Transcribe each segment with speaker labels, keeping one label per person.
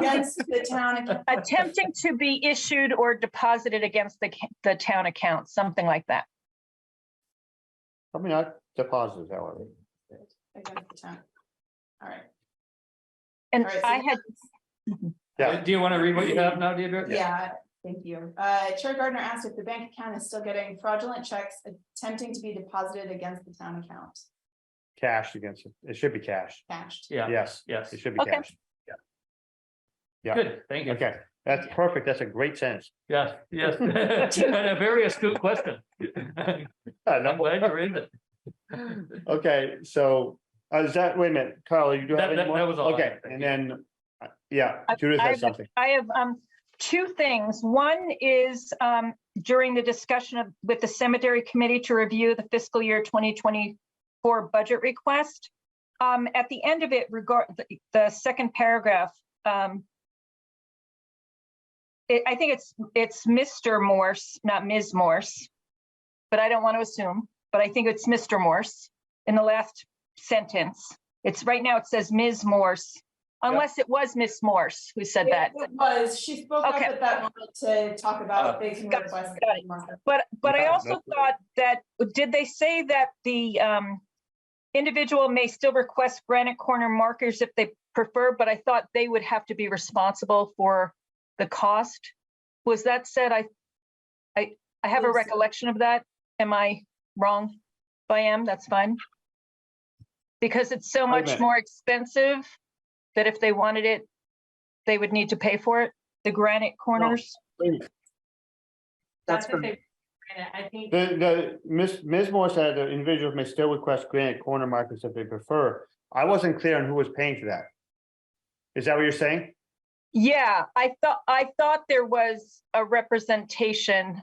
Speaker 1: against the town. ac-
Speaker 2: attempting to be issued or deposited against the, ca- the town account, something like that.
Speaker 3: I mean, I deposited, however.
Speaker 1: against the town. All right,
Speaker 2: And
Speaker 1: All right, so-
Speaker 2: I had,
Speaker 3: Yeah.
Speaker 4: Uh, Do you want to read what you have now, Deidre?
Speaker 1: yeah, thank you. Uh, Chair Gardner asked if the bank account is still getting fraudulent checks attempting to be deposited against the town account,
Speaker 3: Cash against it. It should be cash.
Speaker 1: cashed.
Speaker 4: Yeah,
Speaker 3: Yes,
Speaker 4: yes.
Speaker 3: it should be
Speaker 2: Okay.
Speaker 3: cash. Yeah.
Speaker 4: Good, thank you.
Speaker 3: Okay, that's perfect. That's a great sentence.
Speaker 4: Yes, yes. And a very astute question.
Speaker 3: Uh,
Speaker 4: I'm
Speaker 3: no,
Speaker 4: glad you read it.
Speaker 3: Okay, so uh, is that, wait a minute, Carla, you do
Speaker 4: That-
Speaker 3: have
Speaker 4: that-
Speaker 3: any more?
Speaker 4: that was all I
Speaker 3: Okay,
Speaker 4: had, thank
Speaker 3: and
Speaker 4: you.
Speaker 3: then, uh, yeah,
Speaker 2: I-
Speaker 3: Judith
Speaker 2: I
Speaker 3: has
Speaker 2: have-
Speaker 3: something.
Speaker 2: I have, um, two things. One is, um, during the discussion of, with the cemetery committee to review the fiscal year twenty twenty-four budget request. Um, at the end of it, regard, the, the second paragraph, um, it, I think it's, it's Mr. Morse, not Ms. Morse. But I don't want to assume, but I think it's Mr. Morse in the last sentence. It's, right now it says Ms. Morse, unless it was Miss Morse who said that.
Speaker 1: It was, she spoke up
Speaker 2: Okay. Oh.
Speaker 1: at that moment to talk about they can
Speaker 2: Got it,
Speaker 1: request.
Speaker 2: got But, but I
Speaker 3: Yeah,
Speaker 2: also
Speaker 3: that's
Speaker 2: thought
Speaker 3: right.
Speaker 2: that, did they say that the um, individual may still request granite corner markers if they prefer, but I thought they would have to be responsible for the cost? Was that said, I, I, I have a
Speaker 1: Yes.
Speaker 2: recollection of that. Am I wrong? If I am, that's fine. Because it's so
Speaker 3: a
Speaker 2: much
Speaker 3: minute.
Speaker 2: more expensive that if they wanted it, they would need to pay for it, the granite corners.
Speaker 1: That's.
Speaker 5: from-
Speaker 1: I think.
Speaker 3: The, the, Ms. Ms. Moore said the individuals may still request granite corner markers if they prefer. I wasn't clear on who was paying for that. Is that what you're saying?
Speaker 2: Yeah, I thought, I thought there was a representation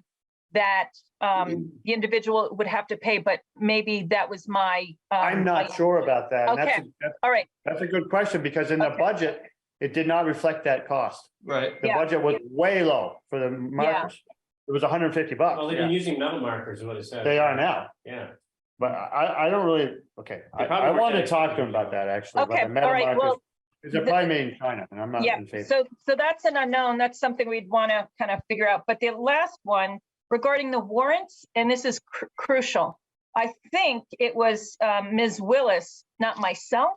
Speaker 2: that
Speaker 3: Mm-hmm.
Speaker 2: um the individual would have to pay, but maybe that was my.
Speaker 3: I'm
Speaker 2: um,
Speaker 3: not
Speaker 2: my-
Speaker 3: sure about that. and that's a- that's-
Speaker 2: All right,
Speaker 3: That's a good question, because in the
Speaker 2: Okay.
Speaker 3: budget, it did not reflect that cost.
Speaker 4: Right.
Speaker 3: The
Speaker 2: Yeah.
Speaker 3: budget was way low for the markers. It was hundred and fifty
Speaker 6: Well,
Speaker 3: bucks.
Speaker 6: they've been using metal markers, is what it says.
Speaker 3: They are now,
Speaker 6: Yeah.
Speaker 3: but I, I don't really, okay, I,
Speaker 6: They probably
Speaker 3: I
Speaker 6: were
Speaker 3: want to
Speaker 6: dedicated
Speaker 3: talk
Speaker 6: to
Speaker 3: to him about
Speaker 6: it.
Speaker 3: that, actually. about
Speaker 2: Okay,
Speaker 3: the metal
Speaker 2: all right, well,
Speaker 3: markers, Because they're
Speaker 2: the-
Speaker 3: probably made in China, and I'm not
Speaker 2: yeah,
Speaker 3: in favor.
Speaker 2: so, so that's an unknown. That's something we'd want to kind of figure out. But the last one regarding the warrants, and this is cr- crucial. I think it was um, Ms. Willis, not myself,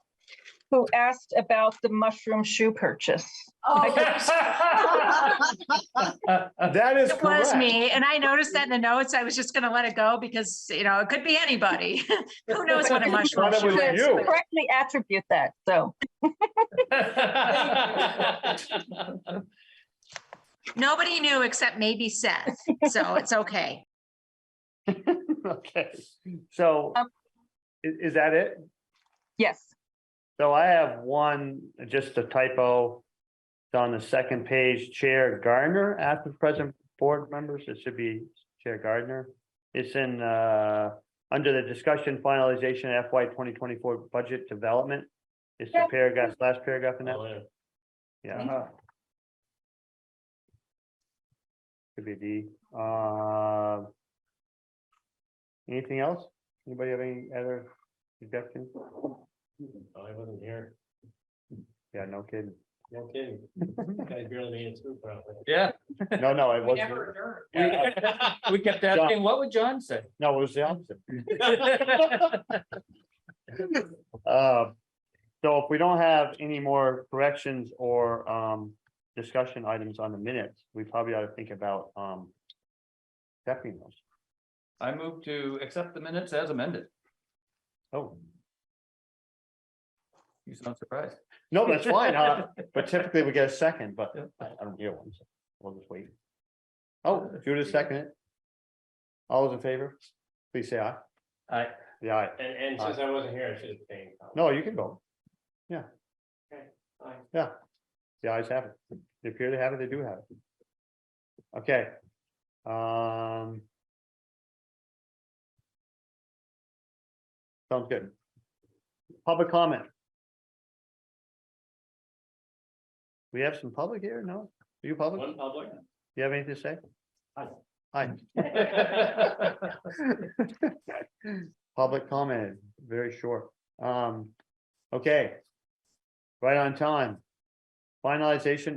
Speaker 2: who asked about the mushroom shoe purchase.
Speaker 1: Oh,
Speaker 3: That is
Speaker 5: It was
Speaker 3: correct.
Speaker 5: me, and I noticed that in the notes. I was just gonna let it go because, you know, it could be anybody. Who knows what a mushroom
Speaker 3: Thought it was
Speaker 5: shoe
Speaker 2: Correct-
Speaker 5: is?
Speaker 3: you.
Speaker 2: Correctly attribute that, so.
Speaker 5: Nobody knew except maybe Seth, so it's okay.
Speaker 3: Okay, so i-
Speaker 2: Um,
Speaker 3: is that it?
Speaker 2: Yes,
Speaker 3: So I have one, just a typo. It's on the second page, Chair Gardner, after present board members, it should be Chair Gardner. It's in, uh, under the discussion finalization FY twenty twenty-four budget development. It's the
Speaker 2: Yeah.
Speaker 3: paragraph, last paragraph in that,
Speaker 6: Oh, yeah.
Speaker 3: yeah. Could be D, uh. Anything else? Anybody have any other suggestions?
Speaker 6: Oh, I wasn't here.
Speaker 3: Yeah, no kidding.
Speaker 6: No kidding. I barely made it through probably.
Speaker 4: Yeah,
Speaker 3: No, no, it wasn't.
Speaker 4: we we kept asking, what would John say?
Speaker 3: No, it was the opposite. Uh, So if we don't have any more corrections or um discussion items on the minutes, we probably ought to think about um. Accepting those.
Speaker 4: I move to accept the minutes as amended.
Speaker 3: Oh,
Speaker 4: You sound surprised.
Speaker 3: no, that's fine, huh? But typically we get a second, but
Speaker 4: Yeah.
Speaker 3: I I don't hear one, so we'll just wait. Oh, Judith seconded. it. All those in favor, please say aye.
Speaker 4: I,
Speaker 3: The aye.
Speaker 6: And, and since I wasn't here, I should have paid.
Speaker 3: No, you can go. Yeah.
Speaker 6: Okay, fine.
Speaker 3: Yeah. The eyes have it. They appear to have it, they do have it. Okay. Um. Sounds good. Public comment. We have some public here, no? Are you public?
Speaker 6: One public.
Speaker 3: You have anything to say?
Speaker 6: Hi.
Speaker 3: Hi, public comment, very short. Um, okay. Right on time. finalization